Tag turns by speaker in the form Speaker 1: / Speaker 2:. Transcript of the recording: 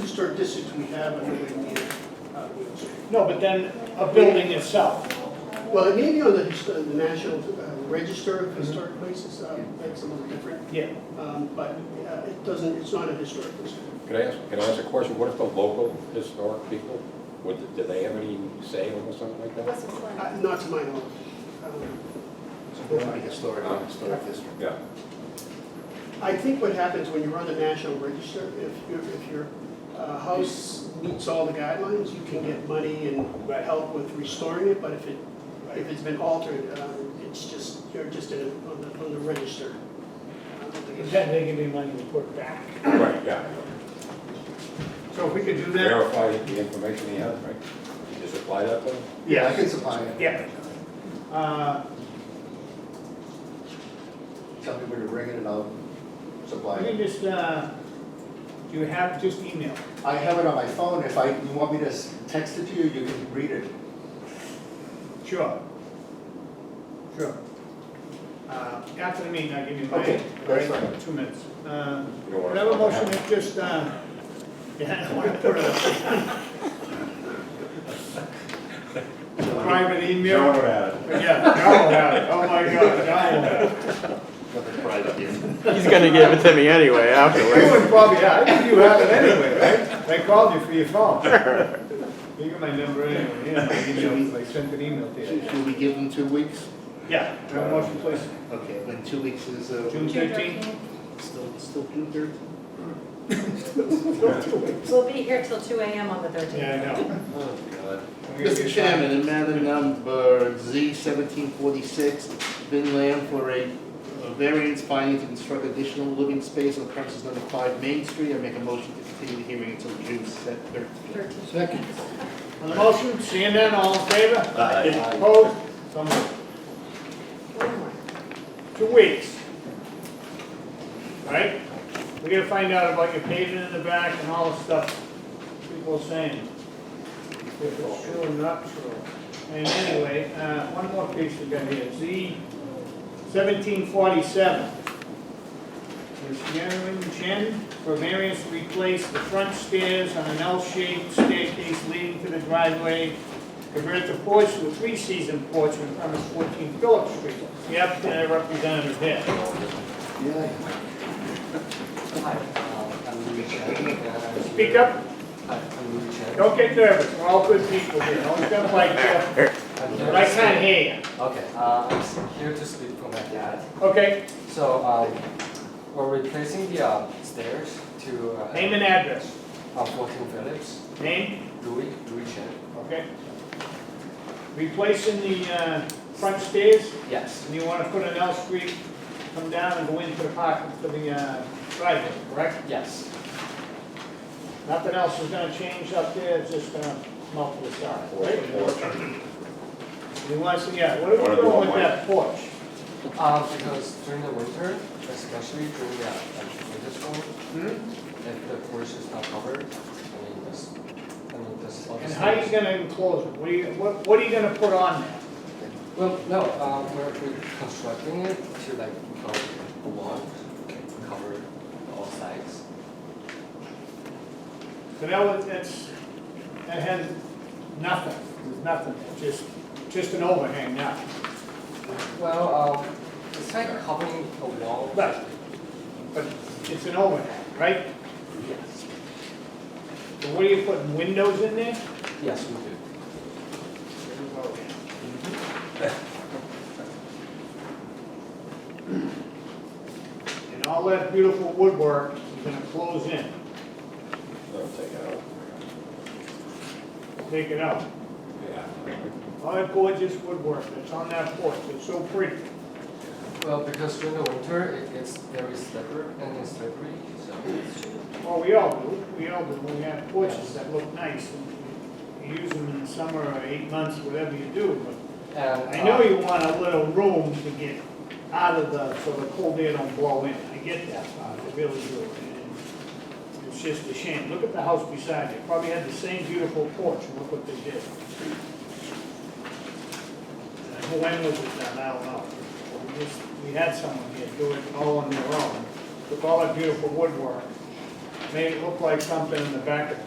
Speaker 1: historic districts we have under the, uh, Wheeling Street.
Speaker 2: No, but then a building itself.
Speaker 1: Well, it may be on the, hist- uh, the National uh, Register of Historic Places, uh, that's a little different,
Speaker 2: Yeah.
Speaker 1: um, but uh, it doesn't, it's not a historic district.
Speaker 3: Can I ask, can I ask a question? What if the local historic people, would, do they have any say on something like that?
Speaker 4: What's the plan?
Speaker 1: Uh, Not to my knowledge. Um,
Speaker 5: Historic, historic district.
Speaker 3: Yeah.
Speaker 1: I think what happens when you're on the National Register, if your, if your uh, house meets all the guidelines, you can get money and help with restoring it, but if it, if it's been altered, uh, it's just, you're just in- on the, on the register.
Speaker 2: Then they give me money to put back.
Speaker 3: Right, yeah.
Speaker 6: So if we could do that,
Speaker 3: Verify the information they have, right? You Just apply that to them?
Speaker 5: Yeah, I can supply it.
Speaker 2: Yeah. Uh,
Speaker 5: Tell me where to bring it and I'll supply
Speaker 2: You can
Speaker 5: it.
Speaker 2: just, uh, do you have, just email.
Speaker 5: I have it on my phone, if I, you want me to s- text it to you, you can read it.
Speaker 2: Sure. Sure. Uh, After the meeting, I'll give you my.
Speaker 5: Okay, that's fine.
Speaker 2: Two minutes. Uh,
Speaker 3: You don't wanna-
Speaker 2: Whatever motion is just, uh, yeah, I don't want to put a private email.
Speaker 3: No one would have it.
Speaker 2: Yeah, Darrell had it, oh my God, Darrell had it.
Speaker 7: He's gonna give it to me anyway
Speaker 2: You
Speaker 7: afterwards.
Speaker 2: would probably, I think you have it anyway, right? They called you for your phone. You got my number anyway, yeah, I emailed, I sent an email to you.
Speaker 5: we give them two weeks?
Speaker 2: Yeah, do I have a motion please,
Speaker 5: Okay, when two weeks is, uh,
Speaker 2: June thirteenth?
Speaker 5: still, still June third?
Speaker 4: We'll be here till two AM on the thirteenth.
Speaker 2: Yeah, I know.
Speaker 5: Oh, God.
Speaker 2: I'm gonna
Speaker 5: Mr.
Speaker 2: be-
Speaker 5: Chairman, in matter number Z seventeen forty-six, Vin Lam for a a variance finding to construct additional living space on premises number five Main Street, I make a motion to continue the hearing until June thirteenth.
Speaker 4: Second.
Speaker 2: On the motion, seeing none, all in favor?
Speaker 5: Aye.
Speaker 2: Opposed? So moved. Two weeks. Right? We're gonna find out about your pavement in the back and all the stuff people are saying. If it's true or not true. And anyway, uh, one more piece we got here, Z seventeen forty-seven. Is Sharon Chen for variance to replace the front stairs on an L-shaped staircase leading to the driveway convert the porch to a three-season porch on premise 14 Phillips Street. The applicant and representative there. Speak up, don't get nervous, we're all good people here, don't jump like, uh, but I can't hear you.
Speaker 8: Okay, uh, I'm s- here to speak for my dad.
Speaker 2: Okay,
Speaker 8: So, um, we're replacing the uh, stairs to uh,
Speaker 2: name and address.
Speaker 8: uh, 14 Phillips,
Speaker 2: Name,
Speaker 8: Louis, Louis Chen.
Speaker 2: okay. Replacing the uh, front stairs,
Speaker 8: Yes,
Speaker 2: and you want to put an L street, come down and go into the parking for the uh, driveway, correct?
Speaker 8: yes,
Speaker 2: Nothing else is gonna change up there, it's just gonna melt to the side, right? He wants to, yeah, what are
Speaker 3: Wanna
Speaker 2: we
Speaker 3: do
Speaker 2: doing
Speaker 3: one
Speaker 2: with
Speaker 3: more?
Speaker 2: that porch?
Speaker 8: uh, because during the winter, especially during the, uh, like, winter storm,
Speaker 2: Hmm?
Speaker 8: if the porch is not covered, I mean, this, I mean, this.
Speaker 2: And how are you gonna enclose it? What are you, what, what are you gonna put on there?
Speaker 8: Well, no, uh, we're we're constructing it to like, uh, a wall, cover all sides.
Speaker 2: So that was, that's, that has nothing, there's nothing, just, just an overhang now.
Speaker 8: Well, um, it's like covering a wall.
Speaker 2: But, but it's an overhang, right?
Speaker 8: Yes.
Speaker 2: So what are you putting, windows in there?
Speaker 8: Yes, we do.
Speaker 2: And all that beautiful woodwork is gonna close in,
Speaker 3: They'll take it out.
Speaker 2: take it out.
Speaker 3: Yeah.
Speaker 2: All that gorgeous woodwork that's on that porch, it's so pretty.
Speaker 8: Well, because during the winter, it gets very slippery and it's slippery, so.
Speaker 2: Well, we all do, we all do, we have porches that look nice, and you use them in the summer or eight months, whatever you do, but
Speaker 8: And.
Speaker 2: I
Speaker 8: uh,
Speaker 2: know you want a little room to get out of the, so the cold air don't blow in, I get that, part, I really do. And It's just a shame, look at the house beside you, probably had the same beautiful porch, and look what they did. And Who end was it done, I don't know, we just, we had someone here do it all on their own, took all that beautiful woodwork, made it look like something in the back of